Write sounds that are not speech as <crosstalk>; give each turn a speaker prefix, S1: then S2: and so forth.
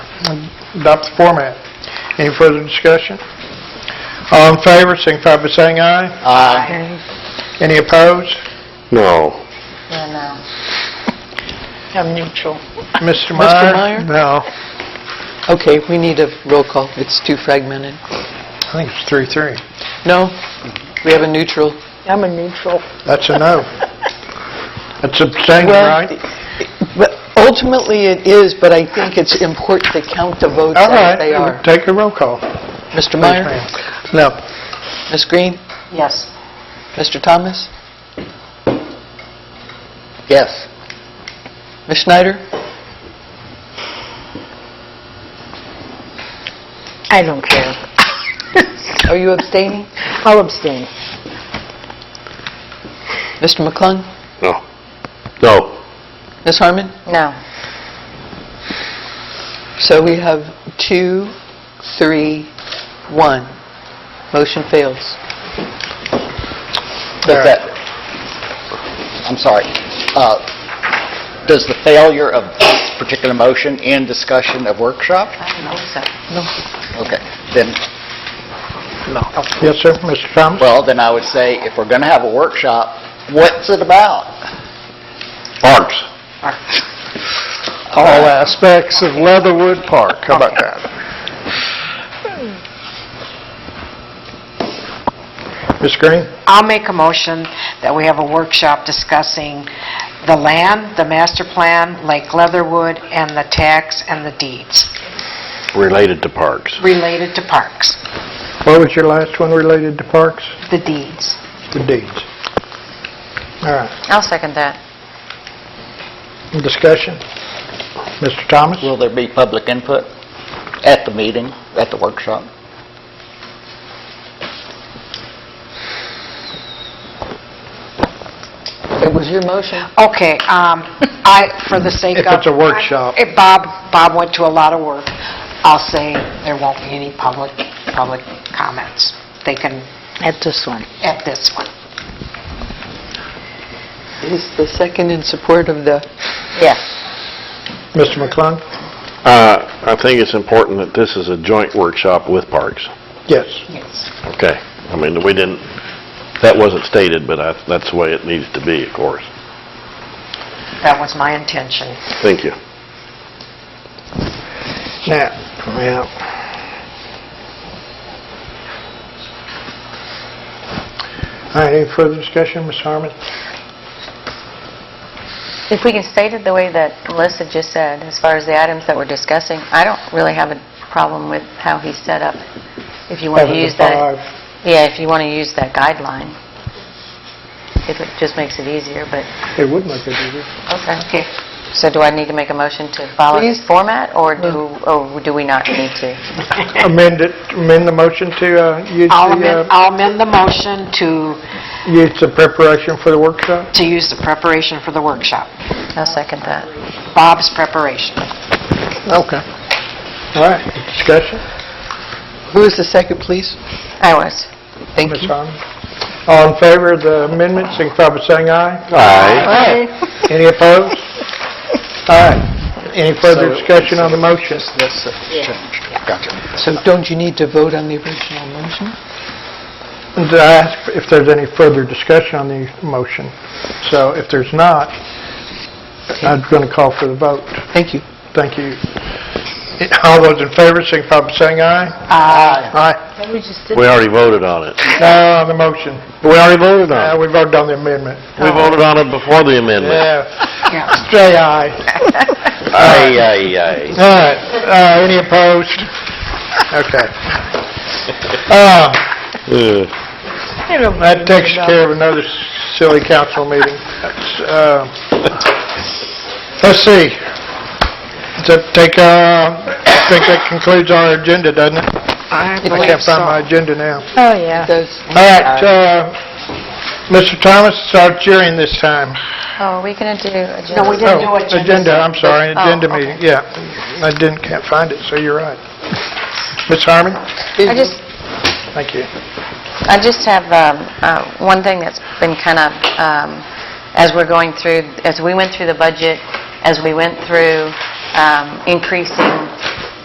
S1: adopt the format. Any further discussion? All in favor, signify by saying aye.
S2: Aye.
S3: Uh,
S1: Any opposed?
S4: No.
S2: Yeah, no. I'm neutral.
S1: Mr.
S5: Mr.
S1: Meyer?
S5: Meyer?
S1: No,
S5: Okay, we need a roll call. It's too fragmented.
S1: I think it's three, three.
S5: No, we have a neutral.
S2: I'm a neutral.
S1: That's a
S5: <laughs>
S1: no. That's abstaining,
S5: Well,
S1: right?
S5: But ultimately, it is, but I think it's important to count the votes
S1: All
S5: as they
S1: right,
S5: are.
S1: take a roll call.
S5: Mr.
S1: Please,
S5: Meyer?
S1: ma'am. No.
S5: Ms. Green?
S2: Yes.
S5: Mr. Thomas?
S2: Yes.
S5: Ms. Schneider?
S2: I don't
S6: <laughs>
S2: care.
S5: Are you abstaining?
S2: I'll abstain.
S5: Mr. McClung?
S4: No. No.
S5: Ms. Harmon?
S2: No.
S5: So we have two, three, one. Motion fails.
S1: All right.
S3: Does that, I'm sorry, Uh, does the failure of this particular motion and discussion of workshop? Okay, then,
S1: Yes, sir, Mr. Thomas?
S3: well, then I would say, if we're going to have a workshop, what's it about?
S4: Parks.
S1: All aspects of Leatherwood Park, how about that? Ms. Green?
S6: I'll make a motion that we have a workshop discussing the land, the master plan, Lake Leatherwood, and the tax and the deeds
S4: Related to parks.
S6: related to parks,
S1: What was your last one related to parks?
S6: the deeds.
S1: The deeds. All right,
S2: I'll second that.
S1: discussion? Mr. Thomas?
S3: Will there be public input at the meeting, at the workshop?
S5: It was your motion.
S6: Okay, um, I, for the sake
S1: If
S6: of...
S1: it's a workshop.
S6: If Bob, Bob went to a lot of work, I'll say there won't be any public, public comments. They can,
S2: At this one.
S6: at this one.
S5: Is the second in support of the...
S2: Yes.
S1: Mr. McClung?
S4: Uh, I think it's important that this is a joint workshop with parks.
S1: Yes.
S6: Yes.
S4: Okay. I mean, we didn't, that wasn't stated, but I- that's the way it needs to be, of course.
S6: That was my intention.
S4: Thank you.
S1: Now, yeah. All right, any further discussion, Ms. Harmon?
S7: If we can state it the way that Melissa just said, as far as the items that we're discussing, I don't really have a problem with how he's set up. If you want to
S1: Seven to
S7: use that...
S1: five.
S7: Yeah, if you want to use that guideline. If it just makes it easier, but,
S1: It would make it easier.
S7: okay. So do I need to make a motion to follow this format, or do, or do we not need to?
S1: Amend it, amend the motion to uh, use
S6: I'll amend,
S1: the, uh,
S6: I'll amend the motion to,
S1: use the preparation for the workshop?
S6: to use the preparation for the workshop.
S7: I'll second that.
S6: Bob's preparation.
S1: Okay. All right, discussion,
S5: Who is the second, please?
S7: I was.
S5: Thank
S1: Ms.
S5: you.
S1: Harmon. All in favor of the amendment, signify by saying aye.
S4: Aye.
S1: Any
S5: <laughs>
S1: opposed? All right, any further
S3: So it-
S1: discussion on the motion?
S3: That's the change. Gotcha.
S5: So don't you need to vote on the original motion?
S1: Did I ask if there's any further discussion on the motion? So if there's not, I'm going to call for the vote.
S5: Thank you.
S1: Thank you. All those in favor, signify by saying aye. Aye.
S4: We already voted on it.
S1: Aye. No, on the motion.
S4: We already voted
S1: Uh,
S4: on it.
S1: We voted on the amendment.
S4: We voted on it before the amendment.
S1: Yeah,
S6: Yeah.
S1: say aye.
S4: Aye, aye, aye.
S1: All right, Uh, any opposed? Okay. Uh,
S4: Ugh.
S1: That takes care of another silly council meeting. Uh, Let's see. Does that take, uh, I think that concludes our agenda, doesn't it? I can't find my agenda now.
S2: Oh, yeah.
S5: Does...
S1: All right, uh, Mr. Thomas, it's our cheering this time.
S7: Oh, are we going to do
S6: No, we
S7: agenda?
S6: didn't do
S1: Oh,
S6: agenda.
S1: Agenda, I'm sorry,
S7: Oh,
S1: agenda
S7: okay.
S1: meeting, yeah. I didn't, can't find it, so you're right. Ms. Harmon?
S7: I just,
S1: Thank you.
S7: I just have um, uh, one thing that's been kind of, um, as we're going through, as we went through the budget, as we went through um, increasing